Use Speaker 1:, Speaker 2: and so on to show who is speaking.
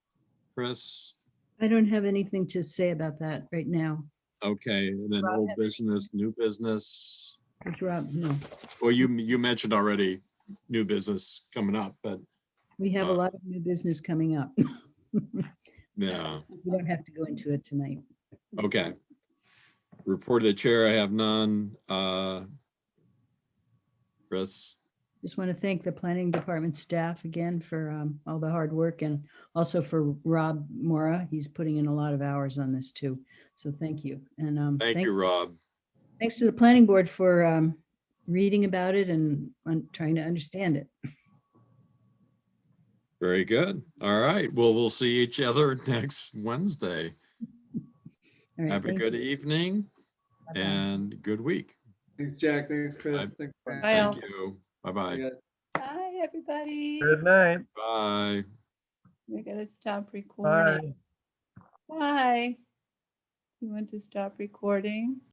Speaker 1: Chris?
Speaker 2: I don't have anything to say about that right now.
Speaker 1: Okay, and then
Speaker 2: Rob,
Speaker 1: old
Speaker 2: have any-
Speaker 1: business, new business.
Speaker 2: It's Rob, no,
Speaker 1: Well, you, you mentioned already new business coming up, but
Speaker 2: we have a
Speaker 1: Uh,
Speaker 2: lot of new business coming up. We
Speaker 1: yeah,
Speaker 2: don't have to go into it tonight.
Speaker 1: okay. Report of the chair, I have none. Uh Chris,
Speaker 2: Just want to thank the planning department staff again for um, all the hard work and also for Rob Mora. He's putting in a lot of hours on this too. So thank you. And um,
Speaker 1: thank you, Rob.
Speaker 2: thanks to the planning board for um, reading about it and um, trying to understand it.
Speaker 1: Very good. All right, well, we'll see each other next Wednesday.
Speaker 2: All right,
Speaker 1: Have a
Speaker 2: thank
Speaker 1: good
Speaker 2: you.
Speaker 1: evening
Speaker 2: Bye-bye.
Speaker 1: and good week.
Speaker 3: Thanks, Jack. Thanks, Chris. Thanks. Brian.
Speaker 4: Bye, all.
Speaker 1: Thank you. Bye-bye.
Speaker 3: Yeah.
Speaker 4: Hi, everybody.
Speaker 5: Good night.
Speaker 1: Bye.
Speaker 4: We're gonna stop recording.
Speaker 5: Bye.
Speaker 4: Bye. You want to stop recording?